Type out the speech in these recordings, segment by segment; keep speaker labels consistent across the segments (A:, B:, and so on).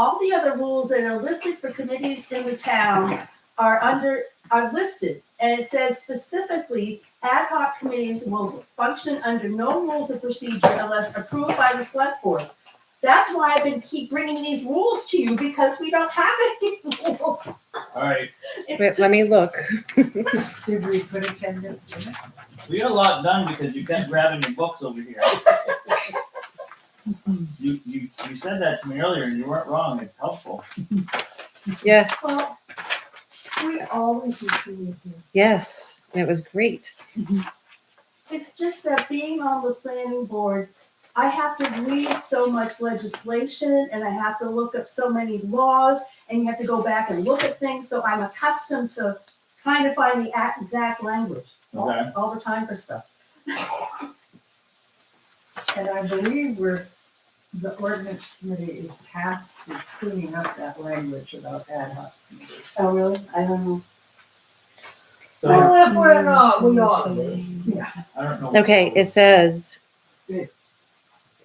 A: All the other rules that are listed for committees in the town are under, are listed. And it says specifically, ad hoc committees will function under no rules of procedure unless approved by the select board. That's why I've been keep bringing these rules to you because we don't have any rules.
B: All right,
A: It's
C: Wait, let
A: just-
C: me look.
D: Did we put attendance in it?
B: we got a lot done because you kept grabbing your books over here. You, you, you said that to me earlier and you weren't wrong, it's helpful.
C: Yeah,
D: Well, we always do
C: yes, it was great.
A: It's just that being on the planning board, I have to read so much legislation and I have to look up so many laws and you have to go back and look at things, so I'm accustomed to trying to find the ac- exact language
B: Okay.
A: all, all the time for stuff.
D: And I believe we're, the ordinance committee is tasked with cleaning up that language about ad hoc committees.
E: Oh, really? I don't know.
B: So,
E: if we're
D: uh,
E: not, we are.
B: I don't know.
C: Okay, it says,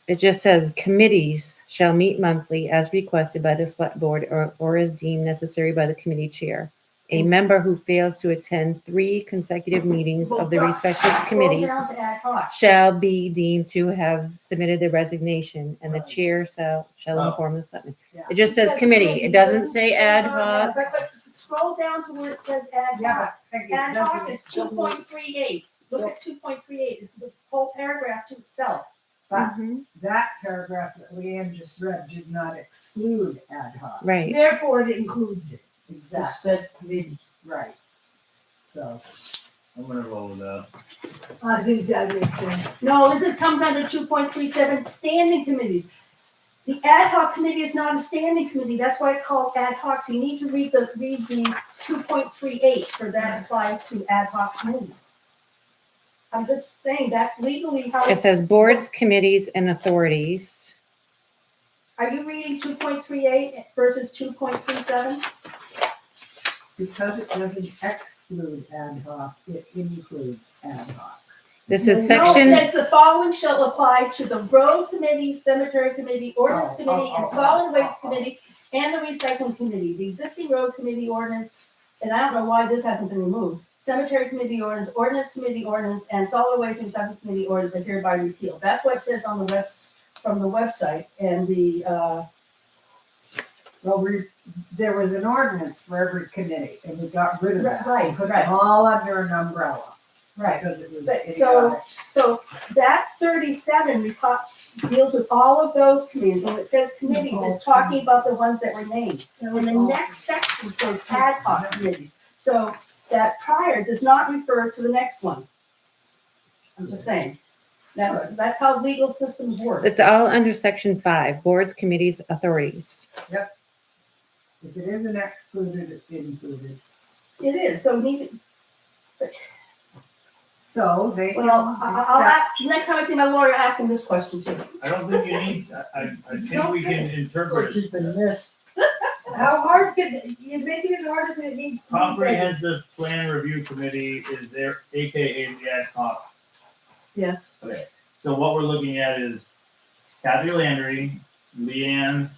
C: it just says committees shall meet monthly as requested by the select board or, or as deemed necessary by the committee chair. A member who fails to attend three consecutive meetings of the respective
A: Scroll
C: committee
A: down to ad hoc.
C: shall be deemed to have submitted their resignation and the
B: Right.
C: chair shall, shall
B: Oh.
C: inform the selectmen.
D: Yeah.
C: It just says committee. It doesn't say ad hoc.
A: But- but Scroll down to where it says ad hoc.
D: Yeah, but Peggy, it
A: Ad hoc is two
D: doesn't-
A: point three eight, look at two point three eight, it's this whole paragraph to itself.
C: Mm-hmm.
D: That paragraph that Leanne just read did not exclude ad hoc.
C: Right.
E: Therefore, it includes it.
D: Exactly,
E: Said committee.
D: right. So,
B: I'm gonna roll with that.
E: I think that makes sense.
A: No, this is, comes under two point three seven, standing committees. The ad hoc committee is not a standing committee, that's why it's called ad hoc, so you need to read the, read the two point three eight, for that applies to ad hoc committees. I'm just saying, that's legally how,
C: It says boards, committees, and authorities.
A: are you reading two point three eight versus two point three seven?
D: because it doesn't exclude ad hoc, it includes ad hoc.
C: This is
A: No, it
C: section,
A: says the following shall apply to the road committee, cemetery committee, ordinance
D: Oh,
A: committee,
D: oh,
A: and
D: oh,
A: solid
D: oh,
A: waste
D: oh.
A: committee, and the recycling committee, the existing road committee ordinance, and I don't know why this hasn't been removed, cemetery committee ordinance, ordinance committee ordinance, and solid waste and recycling committee ordinance are hereby repealed. That's what it says on the webs, from the website, and the, uh,
D: Well, we, there was an ordinance for every committee and we got rid of that.
A: Right,
D: We Put
A: right.
D: them all under an umbrella
A: right,
D: because it was
A: But- so-
D: idiotic.
A: So that thirty-seven reco- deals with all of those committees, and it says committees, it's talking about the ones that were named. And the next section says ad hoc committees, so that prior does not refer to the next one. I'm just saying, that's, that's how legal systems work.
C: it's all under section five, boards, committees, authorities.
D: If it isn't excluded, it's included.
A: It is, so we need, to-
D: So they
A: well, I-
D: can
A: I- I'll,
D: accept,
A: ask- next time I see my lawyer, ask him this question too.
B: I don't think you need, I, I- I think we can interpret
E: you can
B: it.
E: miss. How hard could, you're making it harder than it needs to be.
B: Comprehensive Plan Review Committee is there, AKA the ad hoc
A: Yes.
B: So what we're looking at is Kathy Landry, Leanne,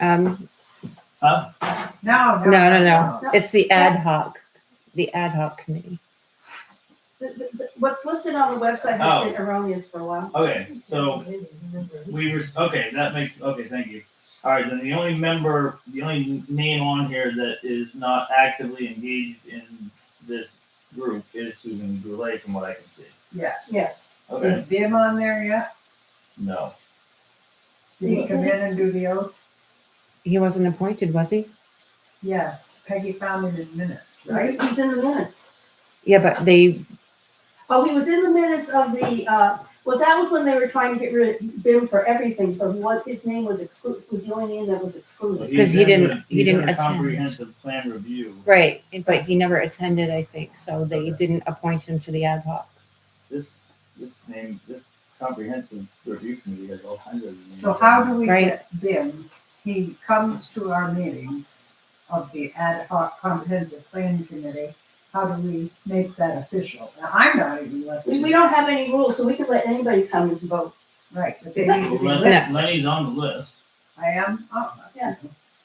C: Um,
D: no, no.
C: No, no, it's the ad hoc, the ad hoc committee.
A: The- the- the- What's listed on the website has been erroneous for a while.
B: okay, so we were, okay, that makes, okay, thank you. All right, then the only member, the only name on here that is not actively engaged in this group is Susan Goulet, from what I can see.
D: Yes.
A: Yes.
B: Okay,
D: Is Bim on there yet?
B: no,
D: Did he come in and do the oath?
C: He wasn't appointed, was he?
D: Yes, Peggy found him in minutes, right?
A: He's in the minutes.
C: Yeah, but they,
A: Oh, he was in the minutes of the, uh, well, that was when they were trying to get rid of Bim for everything, so what, his name was excluded, was the only name that was
B: Well,
A: excluded.
B: he's
C: 'Cause he
B: in
C: didn't-
B: the-
C: he
B: he's in
C: didn't
B: the
C: attend.
B: Comprehensive Plan Review.
C: right, but he never attended, I think, so they didn't appoint him to the ad hoc.
B: This, this name, this Comprehensive Review Committee has all kinds of. names.
D: So how do we
C: Right.
D: get Bim? He comes to our meetings of the ad hoc comprehensive planning committee. How do we make that official? Now, I'm not even
A: We,
D: listening.
A: we don't have any rules, so we could let anybody come and vote.
D: Right, but they need to be
B: Well, Len-
D: listed.
B: Lenny's on the list.
D: I am, oh,
A: Yeah.
D: that's-